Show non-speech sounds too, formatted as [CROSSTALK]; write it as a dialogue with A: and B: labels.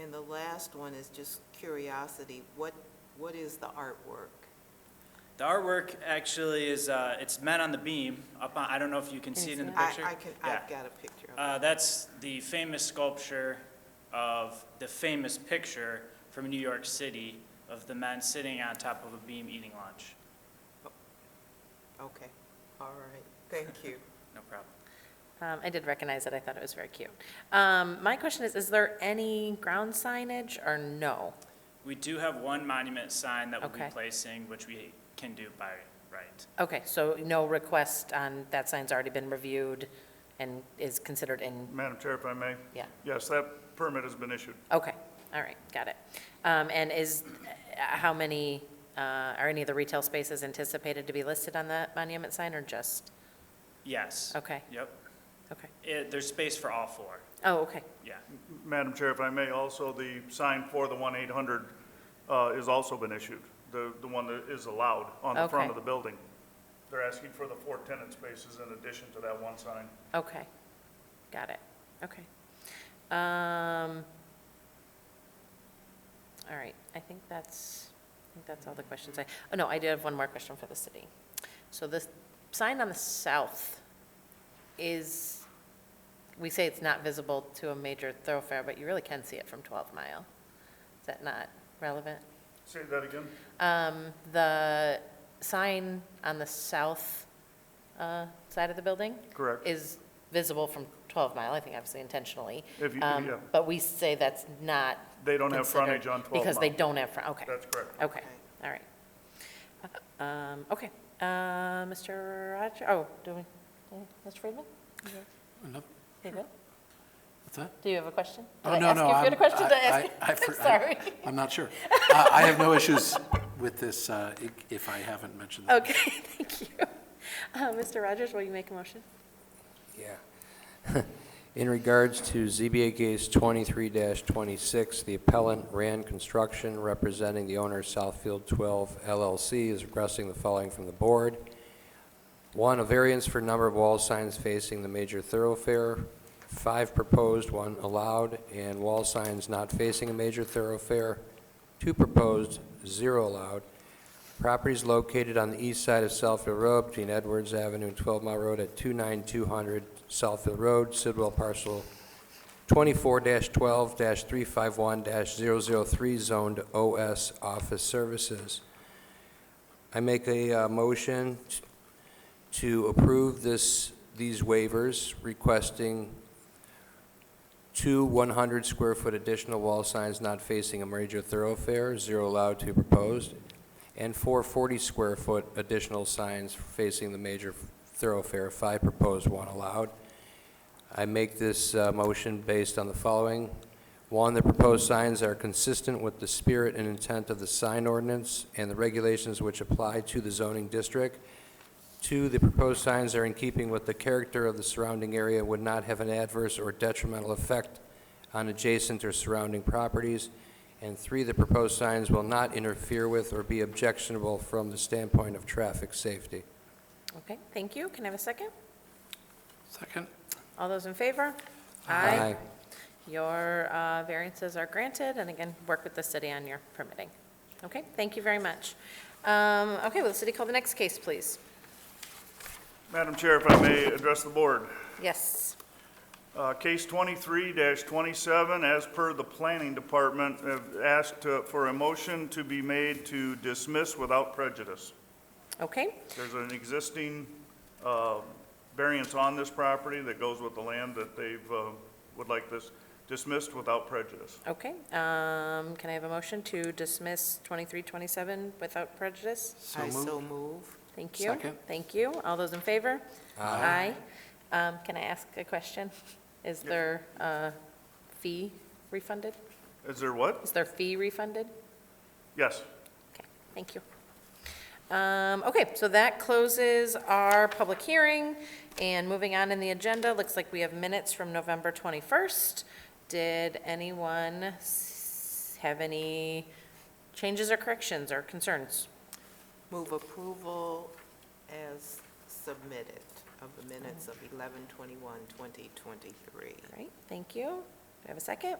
A: And the last one is just curiosity, what, what is the artwork?
B: The artwork actually is, uh, it's men on the beam, up on, I don't know if you can see it in the
A: I,
B: picture.
A: I can,
B: Yeah.
A: I've got a picture of it.
B: Uh, that's the famous sculpture of, the famous picture from New York City of the men sitting on top of a beam eating lunch.
A: Okay, all right, thank you.
B: No problem.
C: Um, I did recognize it, I thought it was very cute. Um, My question is, is there any ground signage or no?
B: We do have one monument sign that we'll be
C: Okay.
B: placing, which we can do by right.
C: Okay, so no request on, that sign's already been reviewed and is considered in,
D: Madam Chair, if I may?
C: yeah,
D: Yes, that permit has been issued.
C: okay, all right, got it. Um, And is, uh, how many, uh, are any of the retail spaces anticipated to be listed on that monument sign or just,
B: Yes.
C: okay,
B: Yep.
C: okay.
B: It, there's space for all four,
C: Oh, okay,
B: yeah.
D: Madam Chair, if I may, also the sign for the 1-800 uh, has also been issued, the, the one that is allowed on the front
C: Okay.
D: of the building. They're asking for the four tenant spaces in addition to that one sign.
C: okay, got it, okay. Um, All right, I think that's, I think that's all the questions I, oh, no, I do have one more question for the city. So this sign on the south is, we say it's not visible to a major thoroughfare, but you really can see it from 12 Mile. Is that not relevant?
D: Say that again?
C: Um, The sign on the south uh, side of the building?
D: Correct.
C: Is visible from 12 Mile, I think obviously intentionally.
D: If you-
C: Um,
D: yeah.
C: But we say that's not.
D: They don't have
C: considered
D: frontage on 12 Mile.
C: Because they don't have, fron- okay,
D: That's correct.
C: okay,
A: Okay.
C: all right. Um, Okay, Uh, Mr. Roger, oh, do we, do- Mr. Friedman?
E: Enough-
C: There you go.
E: What's that?
C: Do you have a question? Did
E: Oh,
C: I
E: no,
C: ask
E: no,
C: you if you had a
E: I'm-
C: question? Did I
E: I-
C: ask
E: I-
C: you- [LAUGHS]
E: I for-
C: I'm sorry.
E: I'm not sure. Uh, I have no issues with this uh, i- if I haven't mentioned that.
C: Okay, [LAUGHS] thank you. Uh, Mr. Rogers, will you make a motion?
F: Yeah. In regards to ZBA case 23-26, the appellant Rand Construction, representing the owner Southfield 12 LLC, is requesting the following from the board. One, a variance for number of wall signs facing the major thoroughfare, five proposed, one allowed, and wall signs not facing a major thoroughfare, two proposed, zero allowed. Property is located on the east side of Southfield Road between Edwards Avenue and 12 Mile Road at 29200 Southfield Road, Sidwell parcel 24-12-351-003 zoned OS Office Services. I make a uh, motion t- to approve this, these waivers requesting two 100-square-foot additional wall signs not facing a major thoroughfare, zero allowed, two proposed, and four 40-square-foot additional signs facing the major thoroughfare, five proposed, one allowed. I make this uh, motion based on the following. One, the proposed signs are consistent with the spirit and intent of the sign ordinance and the regulations which apply to the zoning district. Two, the proposed signs are in keeping with the character of the surrounding area, and would not have an adverse or detrimental effect on adjacent or surrounding properties. And three, the proposed signs will not interfere with or be objectionable from the standpoint of traffic safety.
C: Okay, thank you. Can I have a second?
E: Second?
C: All those in favor?
F: Aye.
C: Your uh, variances are granted, and again, work with the city on your permitting. Okay, thank you very much. Um, Okay, will the city call the next case, please?
D: Madam Chair, if I may address the board.
C: Yes.
D: Uh, Case 23-27, as per the Planning Department, have asked uh, for a motion to be made to dismiss without prejudice.
C: Okay,
D: There's an existing uh, variance on this property that goes with the land that they've, uh, would like this dismissed without prejudice.
C: okay. Um, Can I have a motion to dismiss 2327 without prejudice?
E: So
A: I
E: moved.
A: so move.
C: Thank you.
E: Second.
C: Thank you. All those in favor? Aye. Um, Can I ask a question? Is there a fee refunded?
D: Is there what?
C: Is there fee refunded?
D: Yes.
C: Okay, thank you. Um, Okay, so that closes our public hearing, and moving on in the agenda, looks like we have minutes from November 21st. Did anyone s- have any changes or corrections or concerns?
A: Move approval as submitted of the minutes of 11/21/2023.
C: All right, thank you. Do I have a second?